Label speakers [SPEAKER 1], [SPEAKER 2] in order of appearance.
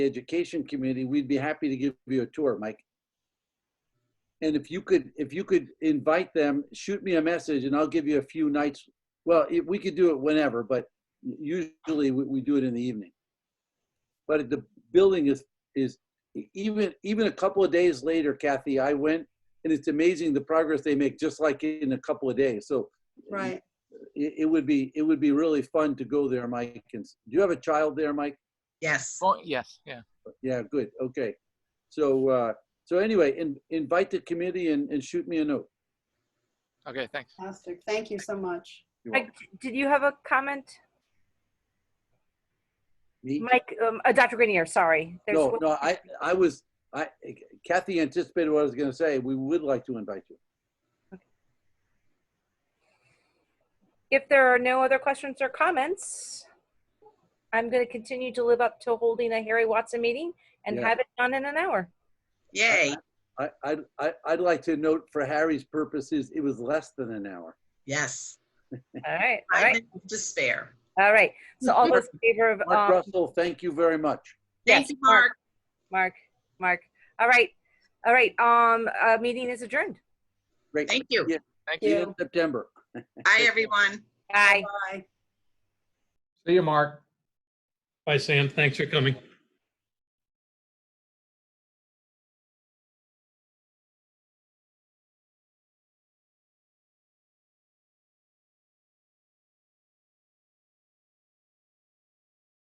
[SPEAKER 1] the education committee, we'd be happy to give you a tour, Mike. And if you could, if you could invite them, shoot me a message and I'll give you a few nights. Well, if, we could do it whenever, but usually we, we do it in the evening. But the building is, is even, even a couple of days later, Kathy, I went and it's amazing the progress they make just like in a couple of days. So
[SPEAKER 2] Right.
[SPEAKER 1] it, it would be, it would be really fun to go there, Mike. And s- do you have a child there, Mike?
[SPEAKER 3] Yes.
[SPEAKER 4] Oh, yes, yeah.
[SPEAKER 1] Yeah, good, okay. So, uh, so anyway, in, invite the committee and, and shoot me a note.
[SPEAKER 4] Okay, thanks.
[SPEAKER 2] Fantastic. Thank you so much.
[SPEAKER 1] You're
[SPEAKER 5] I,
[SPEAKER 1] welcome.
[SPEAKER 5] did you have a comment,
[SPEAKER 1] Me?
[SPEAKER 5] Mike? Um, uh, Dr. Grenier, sorry. There's
[SPEAKER 1] No,
[SPEAKER 5] one-
[SPEAKER 1] no, I, I was, I, Kathy anticipated what I was gonna say. We would like to invite you.
[SPEAKER 5] If there are no other questions or comments, I'm going to continue to live up to holding a Harry Watson meeting and
[SPEAKER 1] Yeah.
[SPEAKER 5] have it done in an hour.
[SPEAKER 3] Yay.
[SPEAKER 1] I, I, I, I'd like to note for Harry's purposes, it was less than an hour.
[SPEAKER 3] Yes.
[SPEAKER 5] All right, all
[SPEAKER 3] I
[SPEAKER 5] right,
[SPEAKER 3] didn't despair.
[SPEAKER 5] all right. So all those in favor of
[SPEAKER 1] Mark
[SPEAKER 5] um,
[SPEAKER 1] Russell, thank you very much.
[SPEAKER 3] Thank
[SPEAKER 5] Yes,
[SPEAKER 3] you,
[SPEAKER 5] Mark.
[SPEAKER 3] Mark.
[SPEAKER 5] Mark, Mark. All right, all right. Um, uh, meeting is adjourned.
[SPEAKER 1] Great.
[SPEAKER 3] Thank you.
[SPEAKER 1] Yeah.
[SPEAKER 4] Thank
[SPEAKER 1] See you
[SPEAKER 4] you.
[SPEAKER 1] in September.
[SPEAKER 3] Bye, everyone.
[SPEAKER 5] Bye.
[SPEAKER 2] Bye.
[SPEAKER 6] See you, Mark.
[SPEAKER 7] Bye, Sam. Thanks for coming.